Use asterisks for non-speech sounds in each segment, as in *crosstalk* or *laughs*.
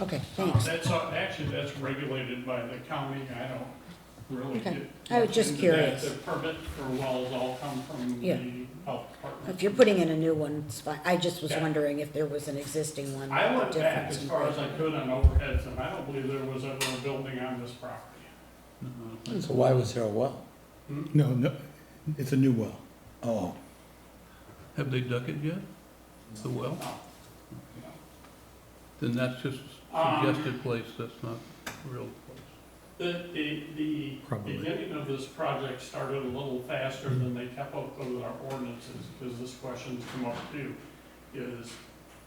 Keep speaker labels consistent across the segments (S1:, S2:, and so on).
S1: Okay,
S2: Uh,
S1: thanks.
S2: That's, uh, actually, that's regulated by the county, I don't really
S1: Okay.
S2: get.
S1: I was just
S2: into that.
S1: curious.
S2: The permit for wells all come from
S1: Yeah.
S2: the health department.
S1: If you're putting in a new one, it's fine. I just was
S2: Yeah.
S1: wondering if there was an existing one.
S2: I
S1: or
S2: went back
S1: difference
S2: as
S1: in
S2: far as
S1: price.
S2: I could on overheads, and I don't believe there was ever a building on this property.
S3: So why was there a well?
S4: No, no, it's a new well.
S3: Oh,
S5: Have they dug it yet? The well?
S2: No.
S5: Then that's just
S2: Um,
S5: suggested place, that's not real place.
S2: The, the, the
S4: Probably.
S2: beginning of this project started a little faster than they kept up with our ordinances, because this question's come up too, is,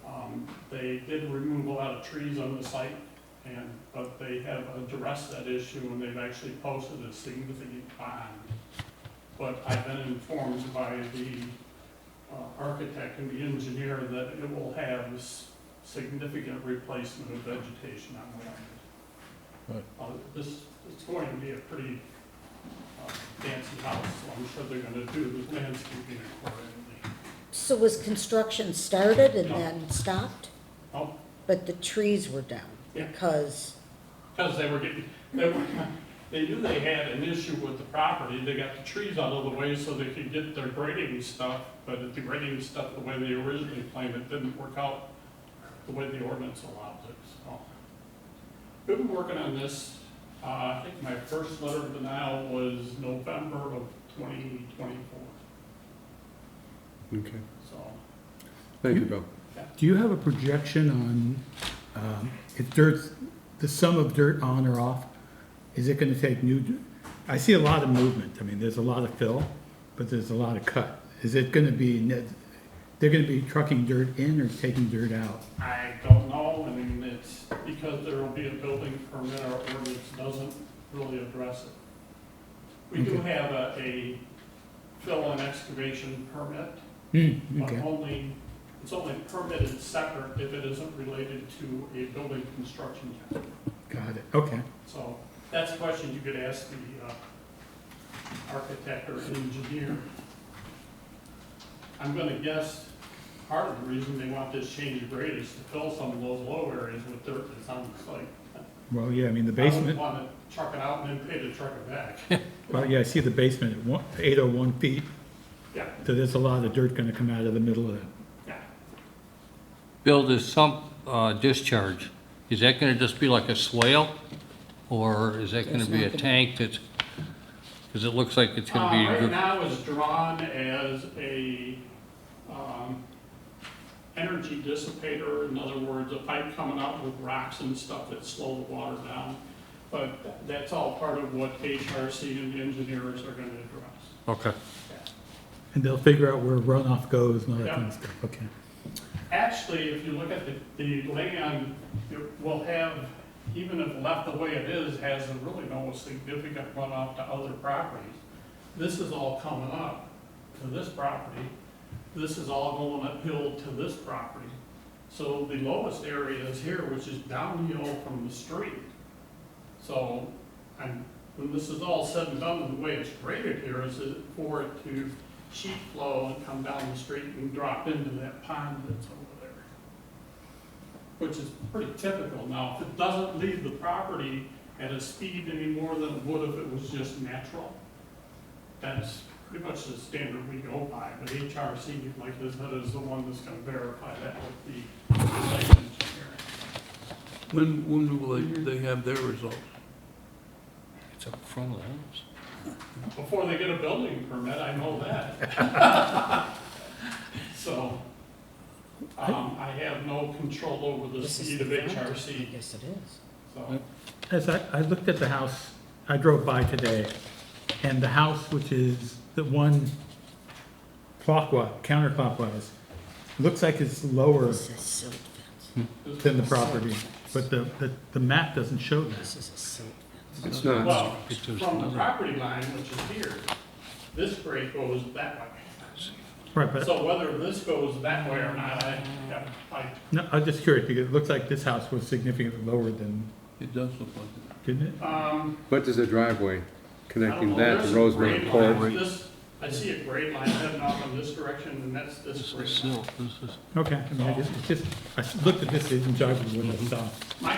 S2: um, they did remove a lot of trees on the site, and, but they have addressed that issue, and they've actually posted a significant bond. But I've been informed by the uh, architect and the engineer that it will have s- significant replacement of vegetation on the land. Uh, This, it's going to be a pretty uh, fancy house, so I'm sure they're gonna do the landscaping accordingly.
S1: So was construction started and
S2: No.
S1: then stopped?
S2: Oh,
S1: But the trees were down
S2: Yeah.
S1: because,
S2: because they were getting, they were, they knew they had an issue with the property, they got the trees out of the way so they could get their grading stuff, but the grading stuff, the way they originally planned it, didn't work out the way the ordinance allows it, so. We've been working on this, uh, I think my first letter of denial was November of twenty twenty-four,
S4: Okay.
S2: so.
S6: Thank you, Bill.
S4: Do you have a projection on, um, if dirt, the sum of dirt on or off? Is it gonna take new, d- I see a lot of movement. I mean, there's a lot of fill, but there's a lot of cut. Is it gonna be, net- they're gonna be trucking dirt in or taking dirt out?
S2: I don't know, I mean, it's because there will be a building permit, our ordinance doesn't really address it. We do have a, a fill and excavation permit,
S4: Hmm,
S2: but
S4: okay,
S2: only, it's only permitted separate if it isn't related to a building construction job.
S4: got it, okay.
S2: So that's a question you could ask the uh, architect or engineer. I'm gonna guess part of the reason they want this change of grade is to fill some of those low areas with dirt that's on the site.
S4: Well, yeah, I mean, the
S2: I wouldn't
S4: basement,
S2: wanna truck it out and then pay to truck it back.
S4: well, yeah, I see the basement at one, eight oh one feet,
S2: Yeah,
S4: so there's a lot of dirt gonna come out of the middle of that.
S2: yeah.
S6: Bill, this sump uh, discharge, is that going to just be like a swale? Or is that going
S1: It's
S6: to be
S1: not
S6: a
S1: gonna-
S6: tank that's, because it looks like it's
S2: Uh,
S6: going to be,
S2: right
S6: gr-
S2: now it's drawn as a, um, energy dissipator, in other words, a pipe coming out with rocks and stuff that slow the water down. But that's all part of what HRC and the engineers are gonna address.
S6: okay.
S4: And they'll figure out where runoff goes and all that kind of
S2: Yeah.
S4: stuff, okay.
S2: Actually, if you look at the, the land, it will have, even if left the way it is, has really no significant runoff to other properties. This is all coming up to this property. This is all going uphill to this property. So the lowest area is here, which is downhill from the street. So, and when this is all said and done, and the way it's graded here is it- for it to sheet flow and come down the street and drop into that pond that's over there. Which is pretty typical now. If it doesn't leave the property at a speed any more than it would if it was just natural, that's pretty much the standard we go by. But HRC, like I said, is the one that's gonna verify that with the site engineer.
S5: When, when will they, they have their results?
S6: It's up front of the house.
S2: Before they get a building permit, I know that.
S1: *laughs*
S2: So, um, I have no control over the
S1: this is
S2: speed
S1: the
S2: of
S1: front?
S2: HRC,
S1: Yes, it is.
S2: so.
S4: As I, I looked at the house, I drove by today, and the house, which is the one clockwise, counterclockwise, looks like it's lower
S1: This is silt fence.
S2: Hmm.
S4: than the property, but the, the, the map doesn't show that.
S1: This is a silt fence.
S6: It's not,
S2: Well,
S6: it's just
S2: from the
S6: another,
S2: property line, which is here, this grade goes that way.
S4: Right, but,
S2: So whether this goes that way or not, I, yeah, I,
S4: no, I'm just curious, because it looks like this house was significantly lower than,
S5: it does look like
S4: didn't it?
S2: um,
S7: What does the driveway
S2: I don't know.
S7: connecting that
S2: There's
S7: to
S2: a
S7: Rosemary
S2: grade
S7: Court?
S2: line. This- I see a grade line heading off in this direction, and that's this
S6: this is
S2: grade line.
S6: silt, this is.
S4: Okay, I mean, I just, it's just, I looked at this, it didn't jive with what I saw.
S2: My